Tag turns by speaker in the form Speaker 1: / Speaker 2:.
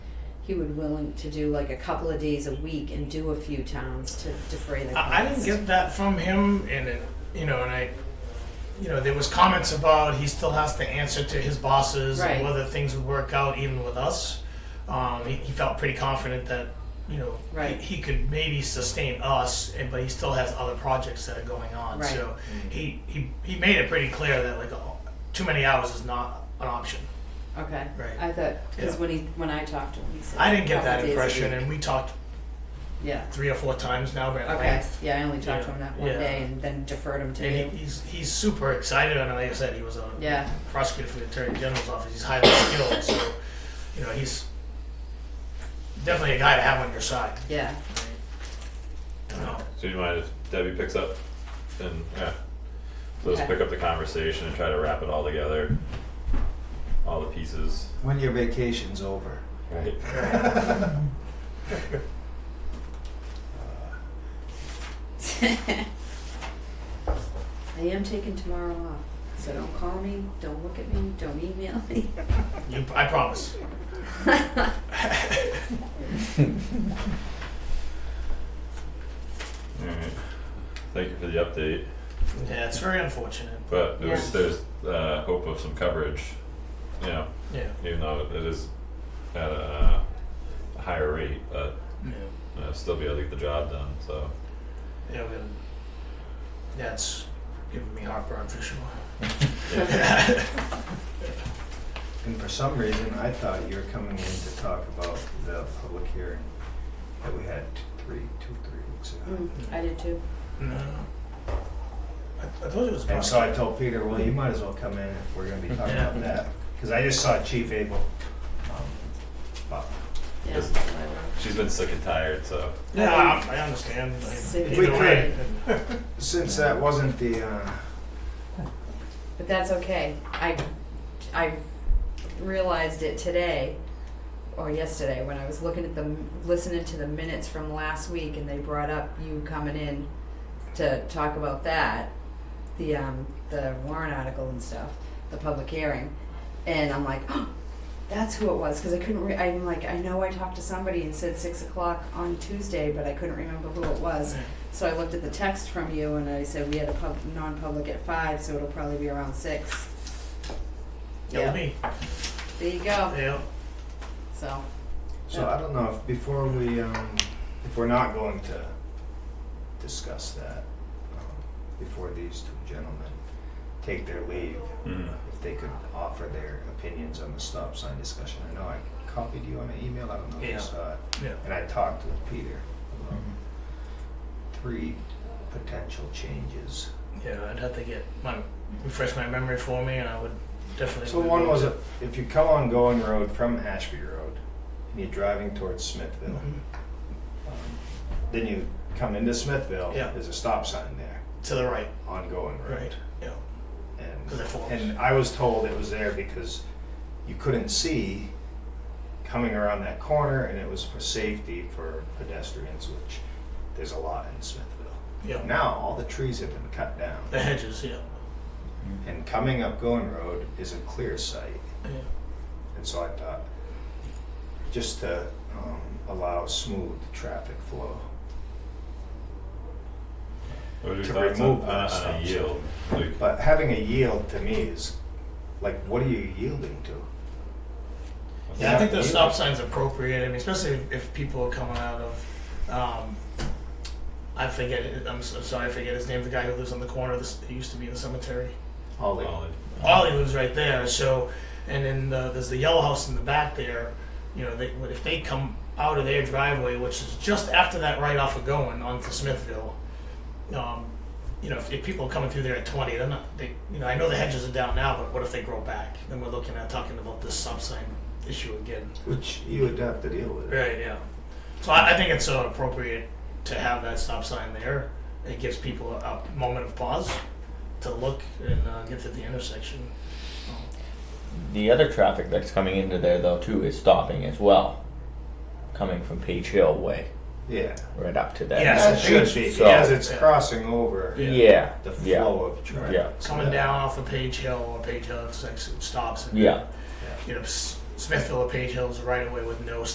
Speaker 1: you were willing to do like a couple of days a week and do a few towns to defray the cost.
Speaker 2: I, I didn't get that from him, and it, you know, and I, you know, there was comments about he still has to answer to his bosses
Speaker 1: Right.
Speaker 2: and whether things would work out even with us. Um, he, he felt pretty confident that you know
Speaker 1: Right.
Speaker 2: he, he could maybe sustain us, and but he still has other projects that are going on.
Speaker 1: Right.
Speaker 2: So he, he he made it pretty clear that like oh, too many hours is not an option.
Speaker 1: Okay.
Speaker 2: Right.
Speaker 1: I thought because
Speaker 2: Yeah.
Speaker 1: when he when I talked to him, he said
Speaker 2: I didn't get
Speaker 1: couple
Speaker 2: that
Speaker 1: days a
Speaker 2: impression,
Speaker 1: week.
Speaker 2: and we talked
Speaker 1: yeah.
Speaker 2: three or four times now. But
Speaker 1: Okay. Yeah, I only talked to him that one
Speaker 2: Yeah.
Speaker 1: day and then deferred him to you.
Speaker 2: And he, he's he's super excited, and like I said, he was on
Speaker 1: yeah.
Speaker 2: prosecutor for the attorney general's office. He's highly skilled, so you know he's definitely a guy to have on your side.
Speaker 1: Yeah.
Speaker 2: No,
Speaker 3: So you mind if Debbie picks up and yeah. So let's
Speaker 1: Okay.
Speaker 3: pick up the conversation and try to wrap it all together. All the pieces.
Speaker 4: When your vacation's over.
Speaker 3: Right.
Speaker 1: I am taking tomorrow off, so don't call me, don't look at me, don't email me.
Speaker 2: you, I promise.
Speaker 3: Alright. Thank you for the update.
Speaker 2: Yeah, it's very unfortunate.
Speaker 3: But there's
Speaker 1: Yeah.
Speaker 3: there's uh hope of some coverage. You know,
Speaker 2: Yeah.
Speaker 3: even though it is at a uh, higher rate, but
Speaker 2: Yeah.
Speaker 3: uh, still be able to get the job done, so
Speaker 2: Yeah. We, yeah, it's giving me heartburn for sure.
Speaker 4: And for some reason, I thought you were coming in to talk about the public hearing that we had t- three, two, three weeks ago.
Speaker 1: Mm, I did too.
Speaker 2: No. I, I thought it was
Speaker 4: And so I
Speaker 2: Boston.
Speaker 4: told Peter, well, you might as well come in if we're gonna be talking
Speaker 2: Yeah.
Speaker 4: about that, because I just saw Chief Abel. um, but
Speaker 1: Yeah.
Speaker 3: Yes. she's been sick and tired, so
Speaker 2: Yeah, I, I understand. I-
Speaker 1: Sick.
Speaker 4: If we
Speaker 2: either way.
Speaker 4: Since that wasn't the, uh,
Speaker 1: But that's okay. I, I realized it today, or yesterday, when I was looking at the, listening to the minutes from last week, and they brought up you coming in to talk about that, the, um, the warrant article and stuff, the public hearing, and I'm like, oh, that's who it was, because I couldn't, re- I'm like, I know I talked to somebody and said six o'clock on Tuesday, but I couldn't remember who it was. So I looked at the text from you and I said we had a pub, non-public at five, so it'll probably be around six.
Speaker 2: Yeah, with me.
Speaker 1: There you go,
Speaker 2: Yeah.
Speaker 1: so,
Speaker 4: so I don't know if before we, um, if we're not going to discuss that, um, before these two gentlemen take their leave,
Speaker 3: mm,
Speaker 4: if they could offer their opinions on the stop sign discussion. I know I copied you on an email, I don't know if
Speaker 2: Yeah.
Speaker 4: you saw it.
Speaker 2: Yeah.
Speaker 4: And I talked with Peter about three potential changes.
Speaker 2: Yeah, I'd have to get my refresh my memory for me, and I would definitely.
Speaker 4: So one was if- if you come on Going Road from Ashby Road and you're driving towards Smithville,
Speaker 2: Mhm.
Speaker 4: um, then you come into Smithville,
Speaker 2: Yeah.
Speaker 4: there's a stop sign there
Speaker 2: to the right,
Speaker 4: on Going Road.
Speaker 2: right? Yeah.
Speaker 4: And,
Speaker 2: 'Cause it forms.
Speaker 4: and I was told it was there because you couldn't see coming around that corner and it was for safety for pedestrians, which there's a lot in Smithville.
Speaker 2: Yeah.
Speaker 4: Now, all the trees have been cut down
Speaker 2: The hedges, yeah.
Speaker 4: and coming up Going Road is a clear site.
Speaker 2: Yeah.
Speaker 4: And so I thought, just to um, allow smooth traffic flow.
Speaker 3: what are your
Speaker 4: To
Speaker 3: thoughts on,
Speaker 4: remove
Speaker 3: on,
Speaker 4: that
Speaker 3: on a
Speaker 4: stuff.
Speaker 3: yield? Like,
Speaker 4: But having a yield to me is like, what are you yielding to?
Speaker 2: Yeah, I think the
Speaker 4: Yeah.
Speaker 2: stop sign's appropriate. I mean, especially if, if people are coming out of, um, I forget. it- I'm, so sorry, I forget his name. The guy who lives on the corner. This he used to be in the cemetery.
Speaker 4: Holly.
Speaker 3: Ollie.
Speaker 2: Ollie lives right there. So, and then the, there's the yellow house in the back there. You know, they, if they come out of their driveway, which is just after that right off of going onto Smithville, um, you know, if, if people are coming through there at 20, they're not, they, you know, I know the hedges are down now, but what if they grow back? Then we're looking at talking about this stop sign issue again.
Speaker 4: Which you would have to deal with.
Speaker 2: Right, yeah. So I, I think it's uh, appropriate to have that stop sign there. It gives people a, a moment of pause to look and uh, get to the intersection.
Speaker 5: The other traffic that's coming into there though too is stopping as well, coming from Page Hill way
Speaker 4: Yeah.
Speaker 5: right up to there.
Speaker 2: Yes.
Speaker 4: That
Speaker 2: So
Speaker 4: should
Speaker 2: it's-
Speaker 4: be,
Speaker 5: so-
Speaker 4: because it's crossing over
Speaker 2: Yeah.
Speaker 5: Yeah.
Speaker 4: the
Speaker 5: yeah.
Speaker 4: flow of traffic.
Speaker 5: Yeah.
Speaker 4: So
Speaker 2: Coming
Speaker 4: that-
Speaker 2: down off of Page Hill or Page Hill, it's like it stops. And,
Speaker 5: Yeah.
Speaker 2: You know, S- Smithville or Page Hill is right away with no